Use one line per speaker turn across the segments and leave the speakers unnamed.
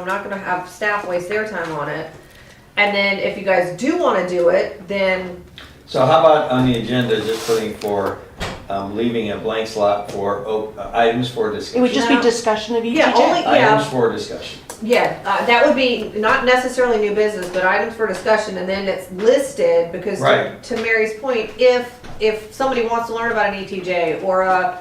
I'm not gonna have staff waste their time on it. And then if you guys do wanna do it, then,
So how about on the agenda, just putting for, um, leaving a blank slot for op- uh, items for
It would
discussion?
just be
Yeah.
discussion of
Yeah, only-
ETJ.
yeah.
Items for discussion.
yeah, uh, that would be not necessarily new business, but items for discussion, and then it's listed, because to-
Right.
to Mary's point, if, if somebody wants to learn about an ETJ or a,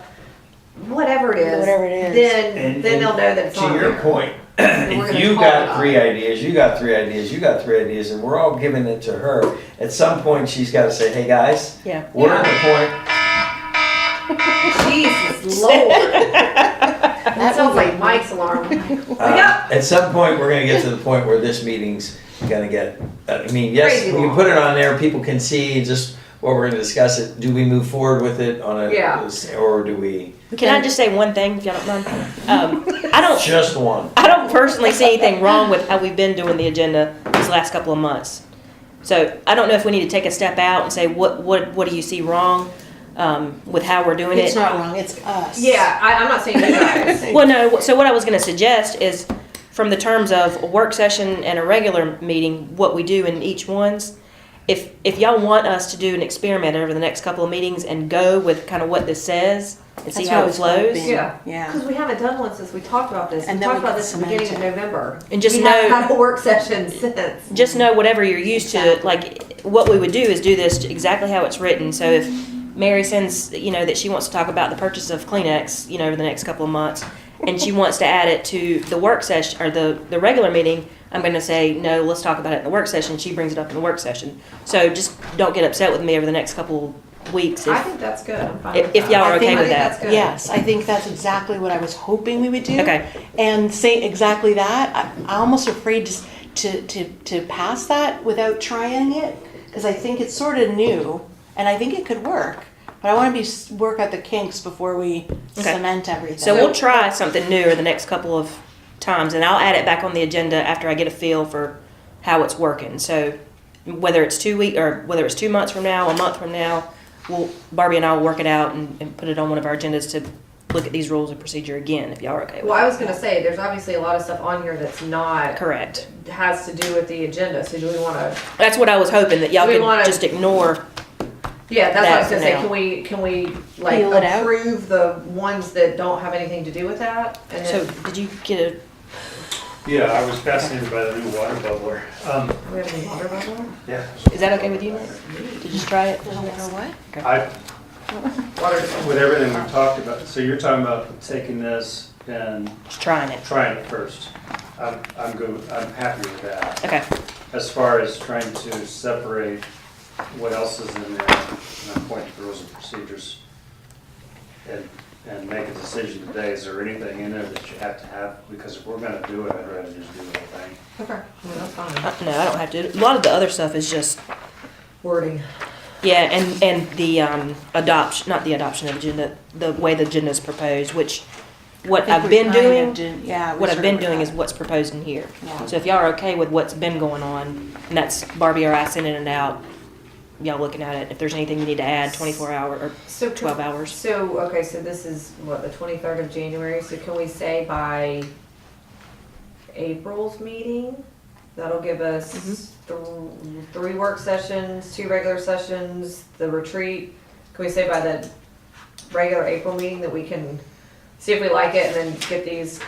whatever it is,
Whatever it is.
then,
And-
then they'll
and
know that it's
To
on
your
there.
point,
we're
if
gonna
you
call it
got
off.
three ideas, you got three ideas, you got three ideas, and we're all giving it to her, at some point, she's gotta say, hey, guys,
Yeah.
we're at the point,
Jesus Lord. That sounds like Mike's alarm.
uh, at some point, we're gonna get to the point where this meeting's gonna get, uh, I mean, yes,
Crazy
we can
long.
put it on there, people can see just what we're gonna discuss it, do we move forward with it on
Yeah.
a, or do we,
Can I just say one thing, if y'all don't mind? Um, I don't,
just one?
I don't personally see anything wrong with how we've been doing the agenda these last couple of months. So I don't know if we need to take a step out and say, what, what, what do you see wrong, um, with how we're doing it?
It's not wrong, it's us.
Yeah, I, I'm not saying you guys.
Well, no, so what I was gonna suggest is, from the terms of a work session and a regular meeting, what we do in each ones, if, if y'all want us to do an experiment over the next couple of meetings and go with kind of what this says and see
That's
how
what
it
it's gonna
flows.
be.
Yeah.
Yeah.
Because we haven't done one since we talked about this.
And
we
then
talked
we
about
can
this at the beginning of
cement
November.
And just
we
know-
haven't had a work session since.
just know whatever you're used to, like, what we would do is do this exactly how it's written. So if Mary sends, you know, that she wants to talk about the purchase of Kleenex, you know, over the next couple of months, and she wants to add it to the work session or the, the regular meeting, I'm going to say, no, let's talk about it in the work session. She brings it up in the work session. So just don't get upset with me over the next couple weeks.
I
If,
think that's good. I'm fine
if,
with
if
that.
y'all
I
are okay
think-
with
I think
that.
that's good.
Yes, I think that's exactly what I was hoping we would do.
Okay.
And say exactly that. I, I'm almost afraid just to, to, to pass that without trying it, because I think it's sort of new, and I think it could work. But I want to be, s- work out the kinks before we
Okay.
cement everything.
So we'll try something new over the next couple of times, and I'll add it back on the agenda after I get a feel for how it's working. So whether it's two week or whether it's two months from now, a month from now, we'll Barbie and I will work it out and, and put it on one of our agendas to look at these rules of procedure again, if y'all are okay with
Well, I was going to say, there's obviously a lot of stuff on here that's
it.
not,
Correct.
has to do with the agenda. So do we want to,
That's what I was hoping that y'all
We
could
wanna-
just ignore.
yeah, that's what I was
That
going to say.
now.
Can we, can we like
Peel it out?
approve the ones that don't have anything to do with that? And
So
then
did you get a?
Yeah, I was fascinated by the new water bubbler. Um,
we have any water bubbler?
yeah.
Is that okay with you? Nick? Did you try it?
what?
I,
Water bubbler.
with everything we've talked about, so you're talking about taking this and
Just trying it.
trying it first. I'm, I'm good, I'm happy with that.
Okay.
As far as trying to separate what else is in there, and I'm pointing to rules and procedures, and, and make a decision today, is there anything in there that you have to have? Because if we're gonna do it, I'd rather just do the whole thing.
Okay, well, that's fine.
Uh, no, I don't have to. A lot of the other stuff is just
Wording.
Yeah, and, and the um, adoption, not the adoption of agenda, the way the agenda is proposed, which, what
I think
I've
we
been
kind of
doing,
did- yeah, we
what I've
sort
been
of-
doing is what's proposed in here.
Yeah.
So if y'all are okay with what's been going on, and that's Barbie or I sending it out, y'all looking at it, if there's anything you need to add, twenty-four hour, or
So can-
twelve hours.
So, okay, so this is what, the twenty-third of January, so can we say by April's meeting? That'll give us th- three work sessions, two regular sessions, the retreat. Can we say by the regular April meeting that we can see if we like it and then get these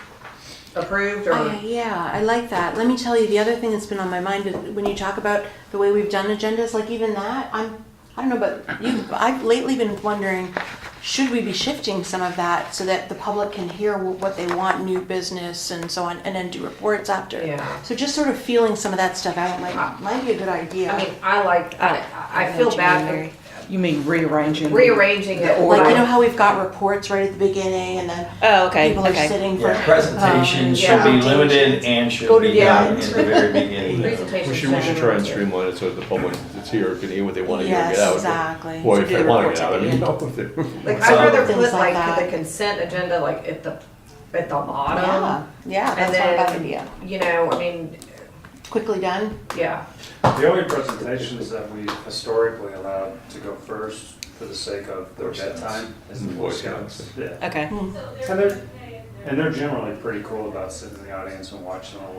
approved
Uh,
or?
yeah, I like that. Let me tell you, the other thing that's been on my mind is when you talk about the way we've done agendas, like even that, I'm, I don't know, but you, I've lately been wondering, should we be shifting some of that so that the public can hear wh- what they want, new business and so on, and then do reports after?
Yeah. Ah.
So just sort of feeling some of that stuff out might, might be a good idea.
I mean, I like, I, I feel bad
You mean rearranging?
rearranging it.
The
Like, you know
like-
how we've got reports right at the beginning and then
Oh, okay,
people are
okay.
sitting for.
Yeah, presentation
um,
should be
yeah.
limited and should
Go to
be
the
done
end.
in the very beginning.
Presentation.
We should, we should try and streamline it so that the public that's here can hear what they want to hear and get
Yes,
out.
exactly.
Or if
Do
they
the
want to
reports
get
at
out, I
the end.
mean, no, if they-
Like,
So-
I'd rather put
Things
like
like
the
that.
consent agenda, like at the, at the
Yeah,
bottom.
yeah,
Um, And
that's not a bad
then,
idea.
you know, I mean,
Quickly done.
yeah,
The only presentations that we historically allowed to go first for the sake of their
Boy Scouts.
bedtime is the
Mm,
Boy
Boy
Scouts. Yeah.
Okay.
Hmm.
And they're, and they're generally pretty cool about sitting in the audience and watching a